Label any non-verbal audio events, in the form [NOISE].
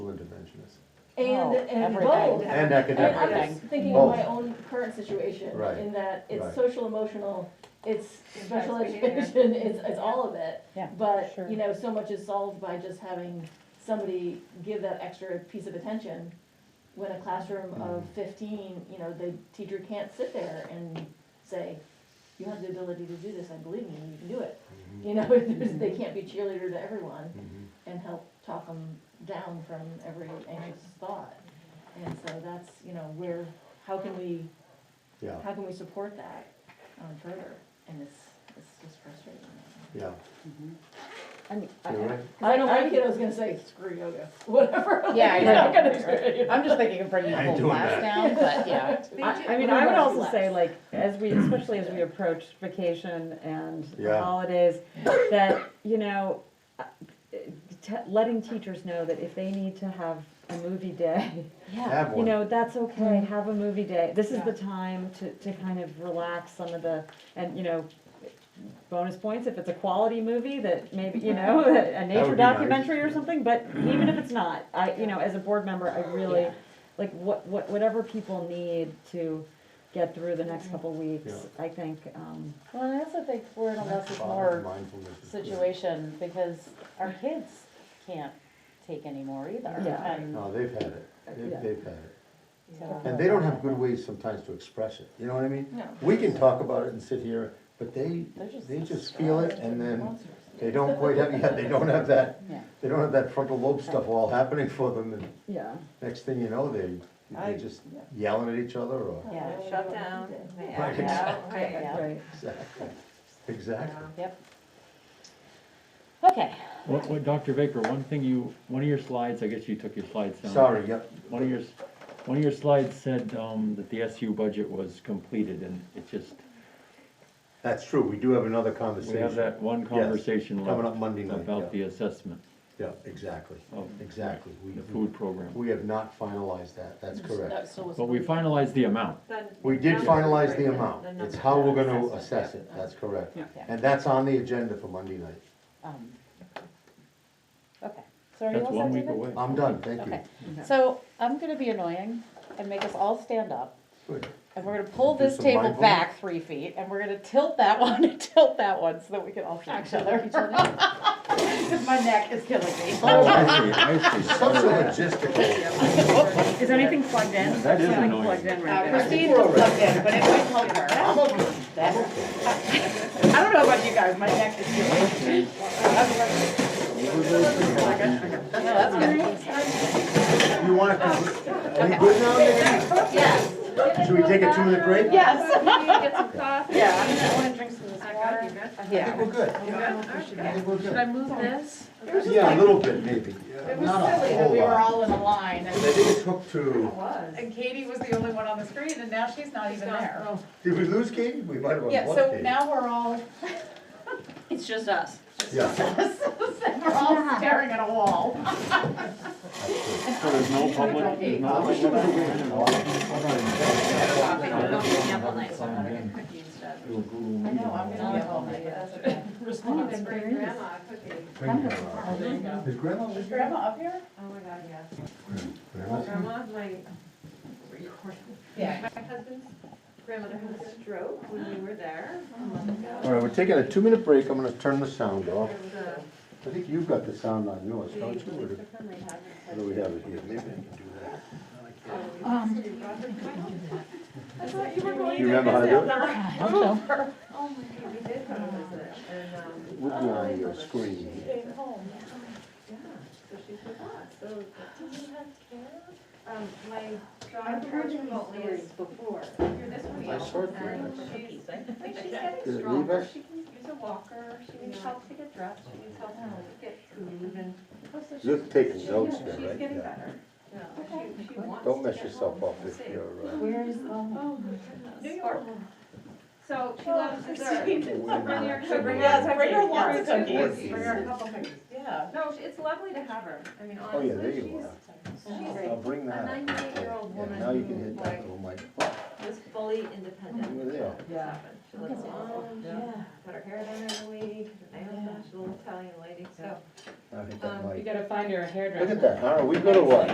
and, No, and everything. bold. And And I'm academic. just Everything. thinking of my Both. own current situation, Right, in that it's right. social emotional, it's special That's behavior. education, [LAUGHS] it's, it's all of it. Yeah, But, sure. you know, so much is solved by just having somebody give that extra piece of attention. When a classroom of Mhm. fifteen, you know, the teacher can't sit there and say, you have the ability to do this, I believe in you, you can do it. Mhm, You know, [LAUGHS] there's- they can't be cheerleader to everyone mhm. and help talk them down from every anxious thought. And so that's, you know, where, how can we, Yeah, how can we support that um, further? And it's, it's just frustrating. yeah, I mean, I- you're right. 'Cause I know my kiddo's gonna say, screw yoga, [LAUGHS] whatever. Yeah, I They're not know. gonna do it, you know? I'm just thinking of bringing I the ain't whole doing class that. down, but yeah. I, I mean, I would also say like, as we, especially as we approach vacation and the Yeah. holidays, that, you know, uh, t- letting teachers know that if they need to have a movie day, Yeah. Have you one. know, that's okay, have a movie day. This is Yeah. the time to, to kind of relax some of the, and, you know, bonus points if it's a quality movie that maybe, you know, a would nature be nice, documentary or yeah. something, but even if it's not, I, you know, as a board member, I really, Yeah. like, what, what, whatever people need to get through the next couple weeks, I think, um, [LAUGHS] Well, and I also think we're in a less is more Mindfulness is good. situation because our kids can't take anymore either. Yeah. And No, they've had it, Yeah. they've, they've had it. so- And they don't have good ways sometimes to express it, you know what I mean? No. We can talk about it and sit here, but they, They're just- they just feel it and then Monsters. they don't quite have, yeah, they don't have that, Yeah. they don't have that frontal lobe stuff all happening for them and yeah. next thing you know, they, I- they just yelling at each other or, Yeah. Oh, shut yeah. down, they Right, act out, exactly. right. Yeah. [LAUGHS] Right. exactly, exactly. Yep. Okay, What, what, Dr. Baker, one thing you, one of your slides, I guess you took your slides down. Sorry, yep, One of your, s- one of your slides said, um, that the SU budget was completed and it just, that's true, we do have another we have conversation. that one conversation Coming up left Monday night, about yeah, the assessment yeah, exactly, of exactly. We- Oh. the food program. We have not finalized that, that's correct. That still was- But we finalized the amount. Then We did number finalize three, the the amount, number it's how we're three gonna assessment. assess it, that's correct. Yeah. Yeah. And that's on the agenda for Monday night. um, okay, so are you That's all set, one week David? away. I'm done, thank you. Okay, so I'm gonna be annoying and make us all stand up. Good. And we're gonna pull Do this some table mindfulness. back three feet, and we're gonna tilt that [LAUGHS] one and tilt that one, so that we can all see each other. [LAUGHS] Because my neck is killing [LAUGHS] me. Oh, I see, I see. Such a logistical. Is anything plugged in? That is Something annoying. Plugged in Uh, right there. Christine just plugged in, but it might help her. I'm okay. That- I don't know about you guys, my neck is killing me. Okay, No, that's good. You wanna, are you good now, Nick? Yes, Should we take a two minute break? yes, Get some coffee. yeah. I wanna drink some of this I got you, water. I good. think Yeah. we're good. I Okay. think we're Should I good. move this? Yeah, a little bit maybe. It was silly that we were all in a line, I and- think it took two. was. and Katie was the only one on the screen, and now she's not even there. Did we lose Katie? We might have lost Yeah, Katie. so now we're all, It's just us. [LAUGHS] Yeah. [LAUGHS] we're all staring at a wall. So there's no public, there's no Coffee, we'll go hang out all night, so I'm gonna get cookies done. I know, I'm gonna be at home, but that's okay. Oh, it's for your grandma cookie. Bring her up. Is grandma Is with you? Grandma up here? Oh, my God, yes. Grandma's- Grandma, my, my husband's grandmother had a stroke when we were there a month ago. All right, we're taking a two minute break. I'm gonna turn the sound off. There was a- I think you've got the sound on yours, the don't you? Or do- Christopher may have it, or but- do we have it here? Maybe I can do that. I thought you were going You remember how to do it? Oh, my God, we did go to visit, and, um, We'll be on your screen. yeah, so she's with us, so. Do you have care? Um, my daughter worked remotely as before, you're this week, I saw it and for she's, I think she's getting Did it leave stronger, us? she can use a walker, she needs help to get dressed, she needs help to get food, and. so You're she's- taking she- notes yeah, there, She's right? getting Yeah. better. She- she wants Don't to mess get yourself home. up if Let's see. you're, uh, Where is, oh. Oh, my goodness. New York. So she loves dessert. Bring your So bring cookies. us- bring her lots of Yeah, cookies. Bring her a couple cookies. Yeah. No, she- it's lovely to have her. I mean, oh yeah, there honestly, she's, you are. she's I'll bring that A up. 98-year-old Yeah, woman Now you can who, hit like- that little mic. Oh, was fully independent. You were there. Yeah. She lives alone, yeah, cut her hair done every week, her nails done, she's a little Italian lady, so. I hit that Um, mic. gotta find her a hairdresser. Look at that, Howard, we go to what?